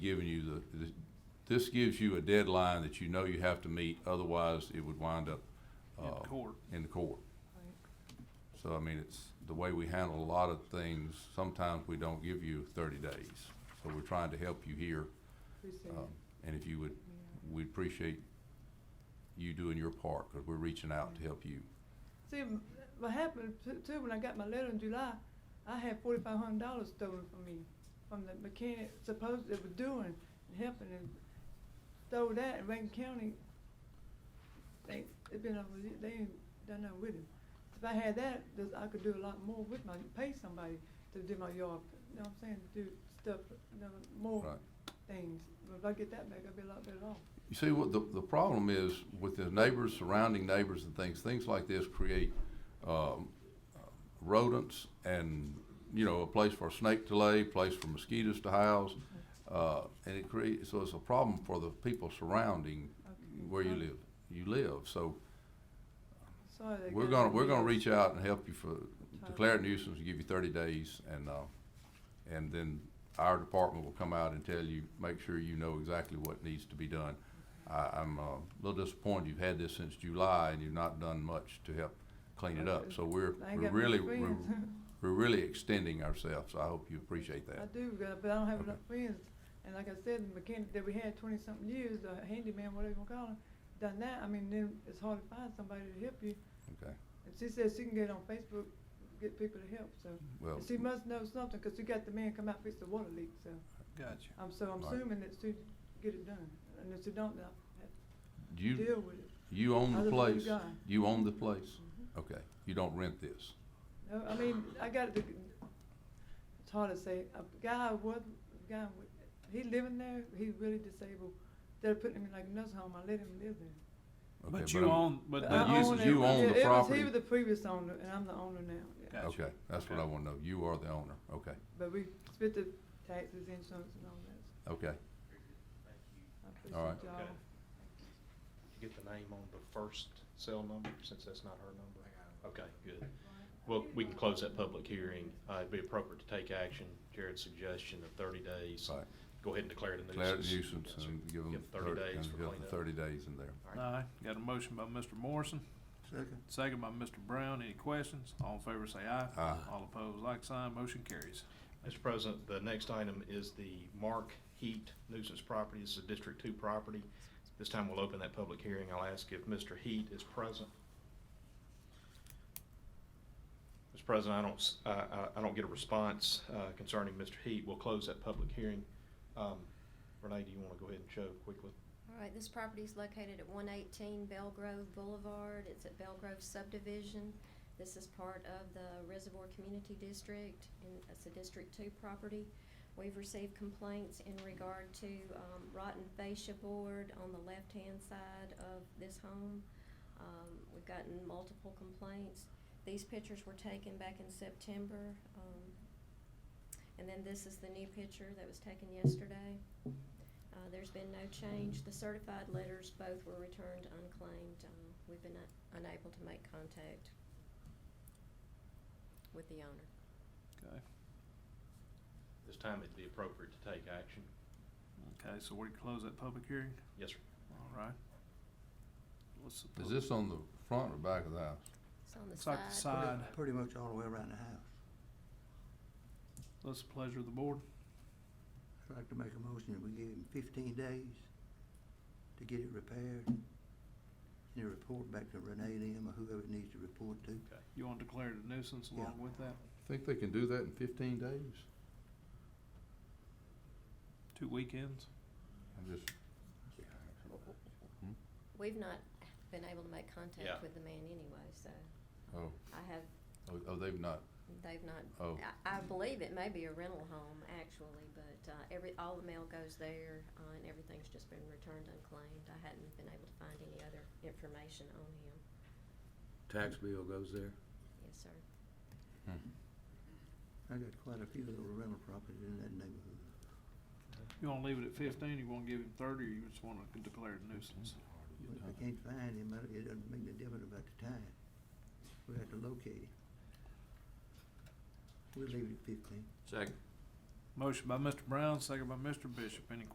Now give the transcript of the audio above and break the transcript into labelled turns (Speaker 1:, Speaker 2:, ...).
Speaker 1: giving you the, this- this gives you a deadline that you know you have to meet, otherwise it would wind up,
Speaker 2: in
Speaker 1: uh,
Speaker 2: court.
Speaker 1: in the court. So, I mean, it's, the way we handle a lot of things, sometimes we don't give you thirty days. So we're trying to help you here,
Speaker 3: Appreciate
Speaker 1: um,
Speaker 3: it.
Speaker 1: and if you would,
Speaker 3: Yeah.
Speaker 1: we'd appreciate you doing your part, because we're reaching out to help you.
Speaker 3: See, m- what happened to- too, when I got my letter in July, I had forty-five hundred dollars stolen from me, from the mechanic supposed that was doing and helping and stole that in Rankin County. They, it been, over the- they ain't done nothing with it. If I had that, this- I could do a lot more with my, pay somebody to do my yard, you know what I'm saying, do stuff, you know, more
Speaker 1: Right.
Speaker 3: things. But if I get that back, I'd be a lot better off.
Speaker 1: You see, what the, the problem is with the neighbors, surrounding neighbors and things, things like this create, um, rodents and, you know, a place for a snake to lay, place for mosquitoes to house. Uh, and it creates, so it's a problem for the people surrounding
Speaker 3: Okay.
Speaker 1: where you live, you live. So
Speaker 3: Sorry. that
Speaker 1: we're
Speaker 3: got
Speaker 1: gonna,
Speaker 3: me
Speaker 1: we're gonna
Speaker 3: out.
Speaker 1: reach out and help you for, declare it nuisance, give you thirty days and, uh, and then our department will come out and tell you, make sure you know exactly what needs to be done. I, I'm uh, a little disappointed you've had this since July and you've not done much to help clean it up. So we're,
Speaker 3: I ain't
Speaker 1: we're
Speaker 3: got many
Speaker 1: really, we're,
Speaker 3: friends.
Speaker 1: we're really extending ourselves. I hope you appreciate
Speaker 3: I
Speaker 1: that.
Speaker 3: do, but I- but I don't have
Speaker 1: Okay.
Speaker 3: enough friends. And like I said, the mechanic that we had twenty-something years, the handyman, whatever you wanna call him, done that, I mean, then it's hard to find somebody to help you.
Speaker 1: Okay,
Speaker 3: And she says she can get on Facebook, get people to help, so.
Speaker 1: well,
Speaker 3: And She must know something, 'cause she got the man come out fix the water leak, so.
Speaker 2: Gotcha.
Speaker 3: I'm, so I'm
Speaker 1: Right.
Speaker 3: assuming that she get it done. And if she don't, then I have to
Speaker 1: you,
Speaker 3: deal with it.
Speaker 1: you own
Speaker 3: Other
Speaker 1: the
Speaker 3: than
Speaker 1: place?
Speaker 3: God.
Speaker 1: You own the place?
Speaker 3: Mhm.
Speaker 1: Okay, you don't rent this?
Speaker 3: No, I mean, I got the, it's hard to say, a guy was, guy, wa- he living there, he's really disabled. They're putting him in like a nursing home, I let him live there.
Speaker 1: Okay,
Speaker 2: But you
Speaker 1: I'm-
Speaker 2: own, but
Speaker 1: But
Speaker 2: the
Speaker 3: I
Speaker 1: you-
Speaker 2: use
Speaker 3: own
Speaker 2: is
Speaker 3: it.
Speaker 1: you
Speaker 3: Yeah,
Speaker 1: own the
Speaker 3: it was-
Speaker 1: property?
Speaker 3: He was the previous owner, and I'm the owner now, yeah.
Speaker 2: Gotcha.
Speaker 1: Okay, that's what I
Speaker 2: Okay.
Speaker 1: wanna know. You are the owner, okay,
Speaker 3: But we split the taxes, insurance and all that.
Speaker 1: okay.
Speaker 3: I
Speaker 1: All right.
Speaker 3: appreciate y'all.
Speaker 4: Okay. You get the name on the first cell number, since that's not her number? Okay, good. Well, we can close that public hearing. Uh, it'd be appropriate to take action. Jared's suggestion of thirty days.
Speaker 1: Right.
Speaker 4: Go ahead and declare it a nuisance.
Speaker 1: Declare it nuisance
Speaker 4: Yes, sir.
Speaker 1: and give them
Speaker 4: Give thirty days for
Speaker 1: and give them
Speaker 4: cleanup.
Speaker 1: thirty days in there.
Speaker 4: All right.
Speaker 2: Aye, got a motion by Mr. Morrison. Second. Second by Mr. Brown, any questions? All in favor say aye.
Speaker 1: Aye.
Speaker 2: All opposed, like sign, motion carries.
Speaker 4: Mr. President, the next item is the Mark Heat nuisance property. This is a District Two property. This time we'll open that public hearing. I'll ask if Mr. Heat is present. Mr. President, I don't, s- I- I- I don't get a response uh, concerning Mr. Heat. We'll close that public hearing. Um, Renee, do you want to go ahead and show quickly?
Speaker 5: All right, this property is located at one eighteen Belgrove Boulevard. It's at Belgrove subdivision. This is part of the Reservoir Community District, and it's a District Two property. We've received complaints in regard to, um, rotten fascia board on the left-hand side of this home. Um, we've gotten multiple complaints. These pictures were taken back in September, um, and then this is the new picture that was taken yesterday. Uh, there's been no change. The certified letters both were returned unclaimed. Um, we've been un- unable to make contact with the owner.
Speaker 2: Okay,
Speaker 4: This time it'd be appropriate to take action.
Speaker 2: okay, so we close that public hearing,
Speaker 4: Yes, sir.
Speaker 2: all right. What's the
Speaker 1: Is
Speaker 2: pub-
Speaker 1: this on the front or back of the house?
Speaker 5: It's on the
Speaker 2: It's
Speaker 5: side.
Speaker 2: like the side,
Speaker 6: Pretty much all the way around the house.
Speaker 2: what's the pleasure of the board?
Speaker 6: I'd like to make a motion that we give him fifteen days to get it repaired. And a report back to Renee and them or whoever it needs to report to.
Speaker 2: You want to declare it a nuisance along with that?
Speaker 1: Think they can do that in fifteen days?
Speaker 2: Two weekends?
Speaker 1: I'm just,
Speaker 5: We've not been able to make contact
Speaker 4: Yeah.
Speaker 5: with the man anyway, so
Speaker 1: oh,
Speaker 5: I have,
Speaker 1: oh, oh, they've not,
Speaker 5: they've not,
Speaker 1: oh,
Speaker 5: I, I believe it may be a rental home actually, but, uh, every, all the mail goes there, uh, and everything's just been returned unclaimed. I hadn't been able to find any other information on him.
Speaker 7: tax bill goes there.
Speaker 5: Yes, sir.
Speaker 6: I got quite a few little rental properties in that neighborhood.
Speaker 2: You wanna leave it at fifteen, you wanna give him thirty, or you just wanna declare it a nuisance?
Speaker 6: But if I can't find him, I- it doesn't make no difference about the time. We have to locate him. We'll leave it at fifteen.
Speaker 7: Second.
Speaker 1: Mm-hmm.
Speaker 2: Motion by Mr. Brown, second by Mr. Bishop, any